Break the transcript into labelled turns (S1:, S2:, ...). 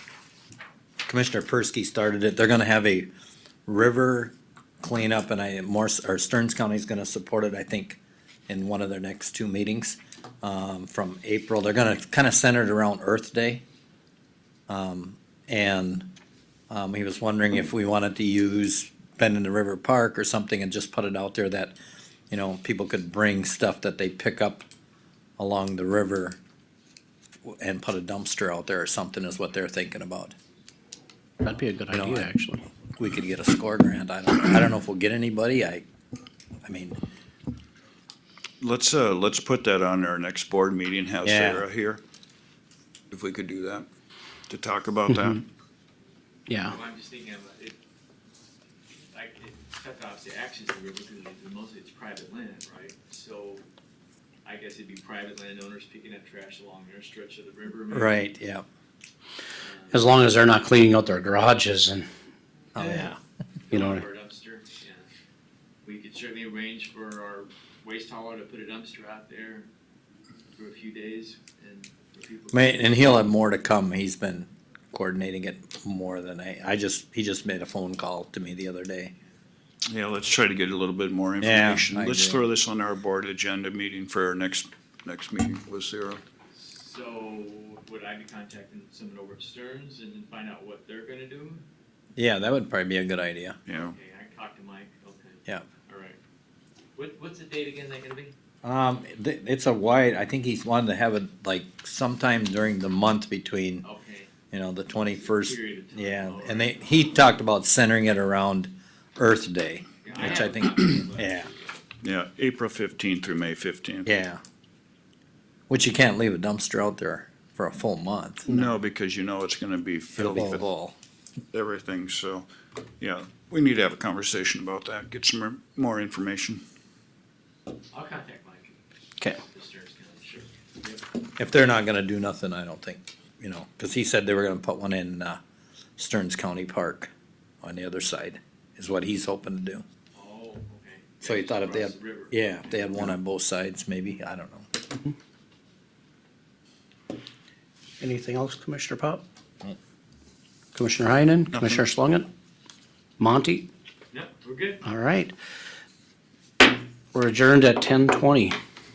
S1: Commissioner Persky started it, they're gonna have a river cleanup and I, Morse, or Stearns County's gonna support it, I think, in one of their next two meetings, um, from April. They're gonna kinda center it around Earth Day. Um, and, um, he was wondering if we wanted to use Bend in the River Park or something and just put it out there that, you know, people could bring stuff that they pick up along the river and put a dumpster out there or something is what they're thinking about.
S2: That'd be a good
S1: know,
S2: idea,
S1: I-
S2: actually.
S1: We could get a score grant. I don't, I don't know if we'll get anybody. I, I mean,
S3: Let's, uh, let's put that on our next board meeting, have
S1: Yeah.
S3: Sarah here, if we could do that, to talk about that.
S1: Mm-hmm. Oh.
S2: Yeah,
S4: Well, I'm just thinking of, it, like, it, except obviously access to river, because it's mostly it's private land, right? So I guess it'd be private landowners picking up trash along their stretch of the river. maybe. Uh,
S1: right, yeah.
S2: as long as they're not cleaning out their garages and,
S1: Oh, yeah.
S2: you know,
S4: Or a dumpster, yeah. We could certainly arrange for our waste hauler to put a dumpster out there for a few days and for people. to-
S1: May- and he'll have more to come. He's been coordinating it more than I, I just, he just made a phone call to me the other day.
S3: Yeah, let's try to get a little bit more information.
S1: I
S3: Let's
S1: agree.
S3: throw this on our board agenda meeting for our next, next meeting with Sarah.
S4: So would I be contacting someone over at Stearns and then find out what they're gonna do?
S1: Yeah, that would probably be a good idea.
S3: Yeah,
S4: Okay, I talked to Mike, okay.
S1: Yeah.
S4: All right. What, what's the date again, is that gonna be?
S1: Um, th- it's a wide, I think he's wanted to have it like sometime during the month between,
S4: Okay.
S1: you know, the twenty-first.
S4: Period of time.
S1: Yeah,
S4: All right.
S1: and they, he talked about centering it around Earth Day.
S4: Yeah,
S1: which
S4: have
S1: I
S4: a
S1: think-
S4: copy of that.
S1: yeah.
S3: yeah, April fifteenth through May fifteenth.
S1: Yeah. Which you can't leave a dumpster out there for a full month.
S3: No, because you know it's gonna be
S1: It'll
S3: filled
S1: be
S3: with
S1: full.
S3: everything, so, yeah, we need to have a conversation about that, get some more- more information.
S4: I'll contact Mike.
S2: Okay.
S4: The Stearns County, sure.
S1: If they're not gonna do nothing, I don't think, you know, cause he said they were gonna put one in, uh, Stearns County Park on the other side, is what he's hoping to do.
S4: Oh, okay.
S1: So you thought if they had,
S4: Across the river.
S1: yeah, if they had one on both sides, maybe, I don't know.
S2: anything else, Commissioner Pop? Commissioner Heinen, Commissioner Schlangen? Monty?
S4: No, we're good.
S2: All right. We're adjourned at ten twenty.